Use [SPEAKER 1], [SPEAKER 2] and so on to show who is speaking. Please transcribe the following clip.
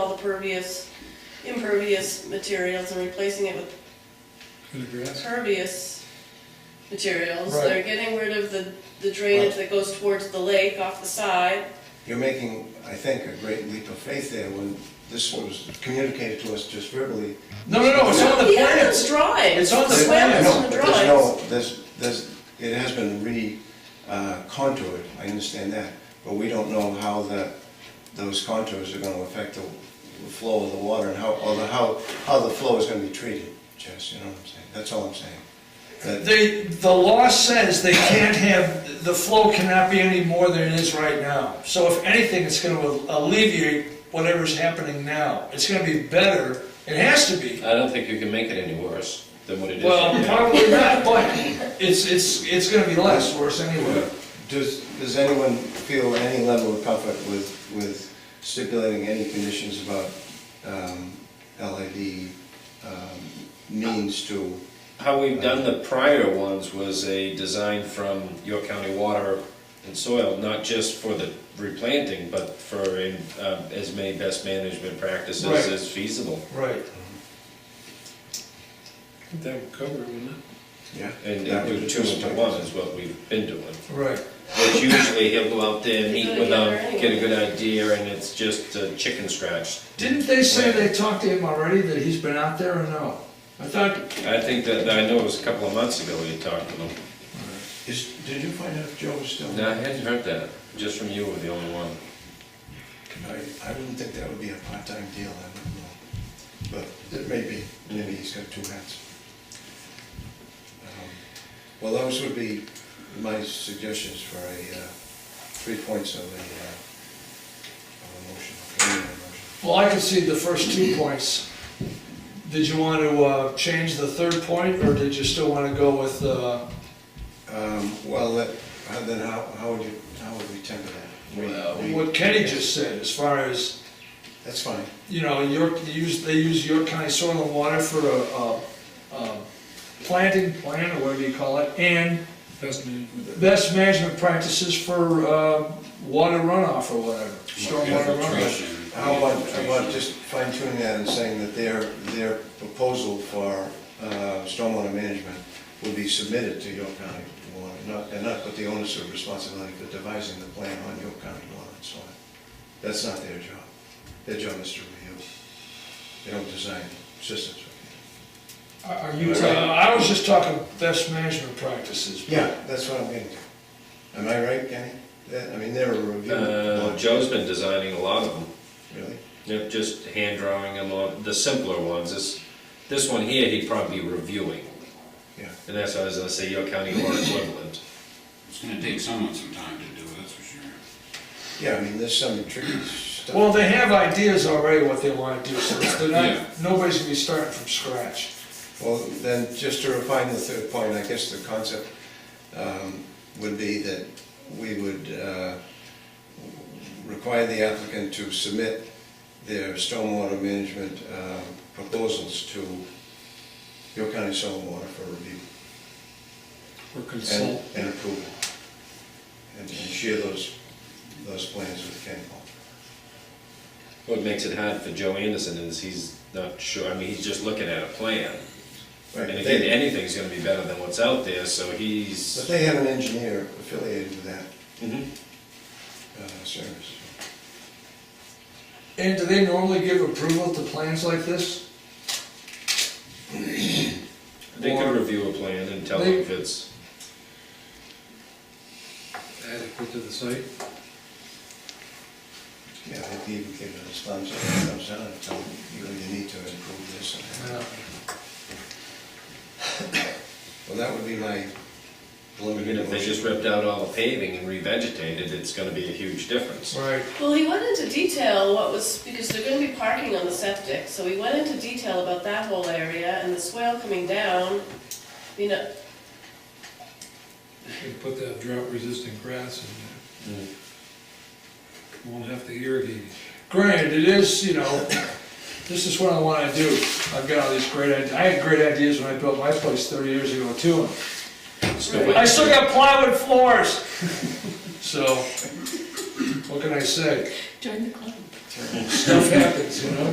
[SPEAKER 1] all the pervious, impervious materials and replacing it with
[SPEAKER 2] in the grass.
[SPEAKER 1] pervious materials.
[SPEAKER 2] Right.
[SPEAKER 1] They're getting rid of the, the drainage that goes towards the lake off the side.
[SPEAKER 3] You're making, I think, a great leap of faith there when this was communicated to us just verbally.
[SPEAKER 2] No, no, no, Oh, it's on the
[SPEAKER 1] He had those
[SPEAKER 2] plans.
[SPEAKER 1] drawings.
[SPEAKER 2] It's on the
[SPEAKER 1] That's why
[SPEAKER 2] plan.
[SPEAKER 1] it's
[SPEAKER 3] No,
[SPEAKER 1] on the
[SPEAKER 3] but there's
[SPEAKER 1] drawings.
[SPEAKER 3] no, there's, there's, it has been re-contoured, I understand that, but we don't know how the, those contours are gonna affect the flow of the water and how, or the, how, how the flow is gonna be treated, Jess, you know what I'm saying? That's all I'm saying. That-
[SPEAKER 2] They, the law says they can't have, the flow cannot be any more than it is right now. So if anything, it's gonna alleviate whatever's happening now. It's gonna be better, it has to be.
[SPEAKER 4] I don't think you can make it any worse than what it is.
[SPEAKER 2] Well,
[SPEAKER 4] right now.
[SPEAKER 2] probably not, but it's, it's, it's gonna be less worse anyway.
[SPEAKER 3] Does, does anyone feel any level of comfort with, with stipulating any conditions about um, LID um, means to,
[SPEAKER 4] How we've done the prior ones was a design from York County Water and Soil, not just for the replanting, but for uh, as many best management practices
[SPEAKER 2] Right.
[SPEAKER 4] as feasible.
[SPEAKER 2] Right.
[SPEAKER 5] That would cover it, wouldn't
[SPEAKER 3] yeah?
[SPEAKER 4] And and do two into one is what we've been doing.
[SPEAKER 2] Right.
[SPEAKER 4] Which usually he'll go out there,
[SPEAKER 1] They
[SPEAKER 4] meet
[SPEAKER 1] go
[SPEAKER 4] with
[SPEAKER 1] together
[SPEAKER 4] them, get a good idea, and it's just a chicken scratch.
[SPEAKER 2] Didn't they say they talked to him already, that he's been out there or no? I thought,
[SPEAKER 4] I think that, I know it was a couple of months ago we talked to them.
[SPEAKER 3] Is, did you find out if Joe was still?
[SPEAKER 4] No, I hadn't heard that, just from you were the only one.
[SPEAKER 3] I, I wouldn't think that would be a part-time deal, I don't know. But it may be, maybe he's got two hats. Um, Well, those would be my suggestions for a, uh, three points of a, uh, of a motion, of a motion.
[SPEAKER 2] well, I could see the first two points. Did you want to, uh, change the third point, or did you still want to go with, uh,
[SPEAKER 3] Um, Well, that- uh, then how, how would you, how would we temper that? We- we-
[SPEAKER 2] what Kenny just said, as far as,
[SPEAKER 3] That's fine.
[SPEAKER 2] you know, York, they use, they use York County Soil and Water for a, a, a planting plan, or whatever you call it, and
[SPEAKER 5] it? Pest management.
[SPEAKER 2] best management practices for, uh, water runoff or whatever, stormwater runoff.
[SPEAKER 3] How about, how about just fine tuning that and saying that their, their proposal for uh, stormwater management would be submitted to York County Water, not, and not put the onus of responsibility for devising the plan on York County Water and so on. That's not their job. Their job is to review. They don't design systems.
[SPEAKER 2] Are are you, uh, I was just talking best management practices.
[SPEAKER 3] Yeah, that's what I'm getting to. Am I right, Kenny? That, I mean, they're a review.
[SPEAKER 4] Uh, Joe's been designing a lot of them,
[SPEAKER 3] Really?
[SPEAKER 4] Yep, just hand drawing them on, the simpler ones, this, this one here, he'd probably be reviewing.
[SPEAKER 3] Yeah.
[SPEAKER 4] And that's why I was gonna say your county or equivalent.
[SPEAKER 6] It's gonna take someone some time to do it, that's for sure.
[SPEAKER 3] Yeah, I mean, there's some tricky stuff.
[SPEAKER 2] Well, they have ideas already what they wanna do, so it's- they're not, nobody's gonna be starting from scratch.
[SPEAKER 3] Well, then, just to refine the third point, I guess the concept um, would be that we would uh, require the applicant to submit their stormwater management um, proposals to York County Soil and Water for review
[SPEAKER 5] Or
[SPEAKER 3] and
[SPEAKER 5] consult.
[SPEAKER 3] and approval. And and share those, those plans with Ken Paul.
[SPEAKER 4] What makes it hard for Joe Anderson is he's not sure, I mean, he's just looking at a plan.
[SPEAKER 3] Right,
[SPEAKER 4] And
[SPEAKER 3] but
[SPEAKER 4] again,
[SPEAKER 3] they-
[SPEAKER 4] anything's gonna be better than what's out there, so
[SPEAKER 3] But
[SPEAKER 4] he's.
[SPEAKER 3] they have an engineer affiliated with that
[SPEAKER 4] Mhm.
[SPEAKER 3] uh, service.
[SPEAKER 2] And do they normally give approval to plans like this?
[SPEAKER 4] They
[SPEAKER 2] Or-
[SPEAKER 4] could review a plan and tell
[SPEAKER 2] They-
[SPEAKER 4] him if it's,
[SPEAKER 5] Adequate to the site.
[SPEAKER 3] Yeah, they even give it a thumbs up, thumbs down, and tell them you really need to improve this. and that.
[SPEAKER 2] Yeah.
[SPEAKER 3] Well, that would be my
[SPEAKER 4] even
[SPEAKER 3] preliminary
[SPEAKER 4] if they just
[SPEAKER 3] motion.
[SPEAKER 4] ripped out all the paving and revegetated, it's gonna be a huge difference.
[SPEAKER 2] Right,
[SPEAKER 1] Well, he went into detail what was, because they're gonna be parking on the septic, so he went into detail about that whole area and the swale coming down. You know,
[SPEAKER 5] They put that drought resistant grass in there. Won't have to irrigate it.
[SPEAKER 2] granted, it is, you know, this is what I wanna do. I've got all these great ideas, I had great ideas when I built my place thirty years ago too.
[SPEAKER 4] Still
[SPEAKER 1] Right.
[SPEAKER 4] waiting
[SPEAKER 2] I still got plywood floors, so, what can I say?
[SPEAKER 7] Join the club.
[SPEAKER 2] Stuff happens, you know?